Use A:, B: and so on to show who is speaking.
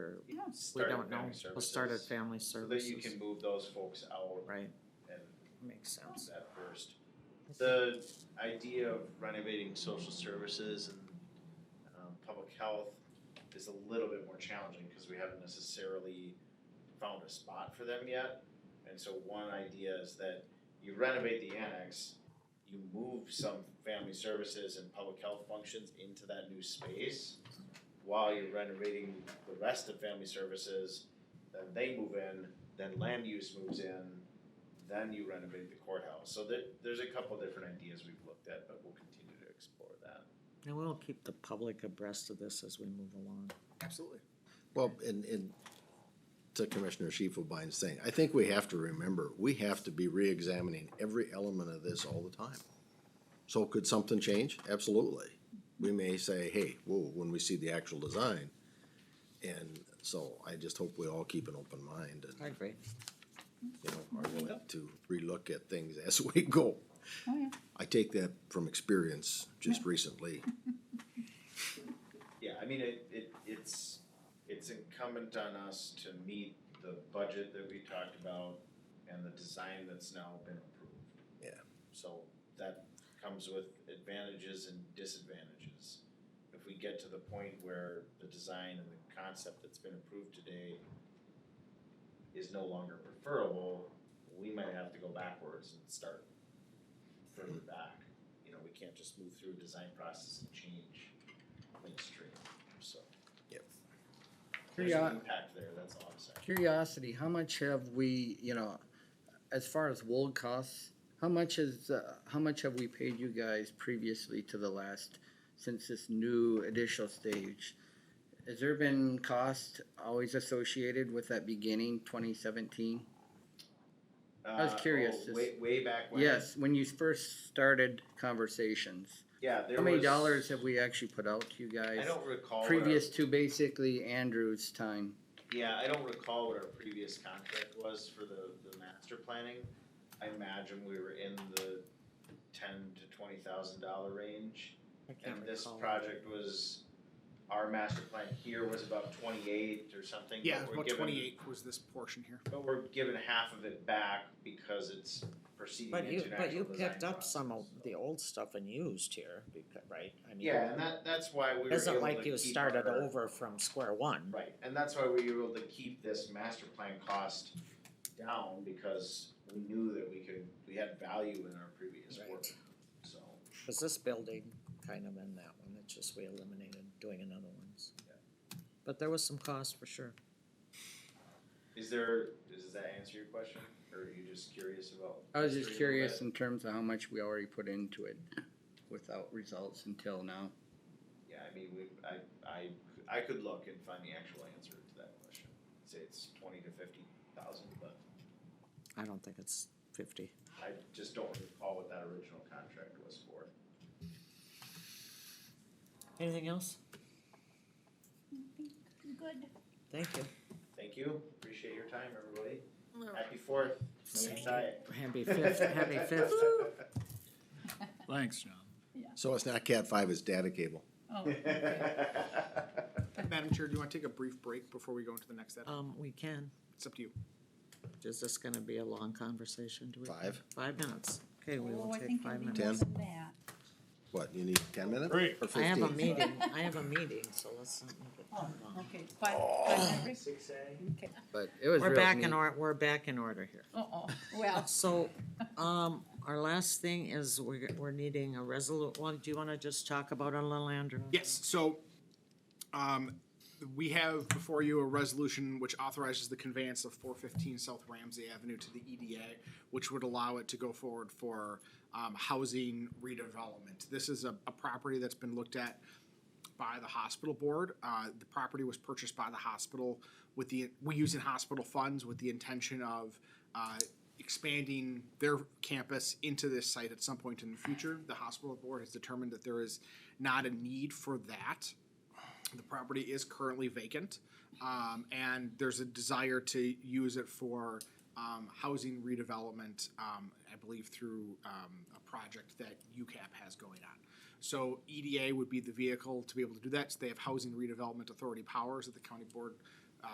A: you
B: Yeah. We
A: start
C: don't
A: at
C: know.
A: family
C: We'll start at
A: services,
C: family
A: So that you
C: services,
A: can move those folks out
C: right,
A: and
C: makes
A: announce
C: sense.
A: that first. The idea of renovating social services and um, public health is a little bit more challenging because we haven't necessarily found a spot for them yet. And so one idea is that you renovate the annex, you move some family services and public health functions into that new space while you're renovating the rest of family services, then they move in, then land use moves in, then you renovate the courthouse. So there, there's a couple different ideas we've looked at, but we'll continue to explore that.
C: And we'll keep the public abreast of this as we move along.
D: Absolutely.
E: Well, and, and to Commissioner Shifelbein's thing, I think we have to remember, we have to be reexamining every element of this all the time. So could something change? Absolutely. We may say, hey, whoa, when we see the actual design. And so I just hope we all keep an open mind and,
C: agree.
E: you know, are willing to relook at things as we go.
B: Oh, yeah.
E: I take that from experience just recently.
A: Yeah, I mean, it, it, it's, it's incumbent on us to meet the budget that we talked about and the design that's now been approved.
E: Yeah.
A: So that comes with advantages and disadvantages. If we get to the point where the design and the concept that's been approved today is no longer preferable, we might have to go backwards and start further back. You know, we can't just move through a design process and change mainstream, so.
E: Yep.
A: There's
D: Curio-
A: an impact there, that's all I'm saying.
D: Curiosity, how much have we, you know, as far as wold costs, how much is, uh, how much have we paid you guys previously to the last, since this new additional stage? Has there been cost always associated with that beginning twenty seventeen? I was
A: Uh,
D: curious,
A: oh,
D: just-
A: Way, way back when.
D: Yes, when you first started conversations,
A: Yeah, there
D: how many
A: was-
D: dollars have we actually put out to you
A: I
D: guys?
A: don't recall. what our-
D: Previous to basically Andrew's time,
A: Yeah, I don't recall what our previous contract was for the, the master planning. I imagine we were in the ten to twenty thousand dollar range.
C: I can't
A: And this
C: recall.
A: project was, our master plan here was about twenty-eight or something. but
D: Yeah,
A: we're
D: about
A: given-
D: twenty-eight was this portion here.
A: But we're given half of it back because it's proceeding
C: But you,
A: into an
C: but
A: actual
C: you
A: design
C: picked up some of
A: process, so.
C: the old stuff and used here, becau- right? I mean,
A: Yeah, and that, that's why we were
C: It isn't
A: able
C: like
A: to
C: you
A: keep
C: started
A: our-
C: over from square one.
A: Right, and that's why we were able to keep this master plan cost down because we knew that we could, we had value in our previous work,
C: Right.
A: so.
C: Was this building kind of in that one? It's just we eliminated doing another ones.
A: Yeah.
C: But there was some cost for sure.
A: Is there, does that answer your question, or are you just curious about?
D: I was
A: history
D: just
A: a little
D: curious
A: bit?
D: in terms of how much we already put into it without results until now.
A: Yeah, I mean, we, I, I, I could look and find the actual answer to that question, say it's twenty to fifty thousand, but
C: I don't think it's fifty.
A: I just don't recall what that original contract was for.
C: Anything else?
F: Good.
C: Thank you.
A: Thank you, appreciate your time, everybody, happy fourth, I'm excited.
C: Happy fifth, happy fifth.
G: Thanks, John.
E: So it's not cat five, it's data cable.
B: Oh,
G: Madam Chair, do you want to take a brief break before we go into the next item?
C: Um, we can.
G: It's up to you.
C: Is this gonna be a long conversation? Do we?
E: Five?
C: Five minutes. Okay, we will
F: Oh, I
C: take
F: think
C: five
F: it'll be
C: minutes.
E: Ten?
F: more than that.
E: What, you need ten minutes?
G: Great.
E: Or
C: I have a
E: fifteen?
C: meeting, I have a meeting, so let's. not make it
B: oh,
C: too long.
B: okay, five, five minutes.
A: Six A.
B: Okay,
D: But it was
C: We're
D: real
C: back
D: neat.
C: in or, we're back in order here.
B: uh-oh, well,
C: So, um, our last thing is we're, we're needing a resolu, well, do you wanna just talk about a little Andrew?
G: Yes, so um, we have before you a resolution which authorizes the conveyance of four fifteen South Ramsey Avenue to the EDA, which would allow it to go forward for um, housing redevelopment. This is a, a property that's been looked at by the hospital board. Uh, the property was purchased by the hospital with the, we use in hospital funds with the intention of uh, expanding their campus into this site at some point in the future. The hospital board has determined that there is not a need for that. The property is currently vacant, um, and there's a desire to use it for, um, housing redevelopment, um, I believe through, um, a project that UCAP has going on. E So EDA would be the vehicle to be able to do that, so they have housing redevelopment authority powers that the county board uh,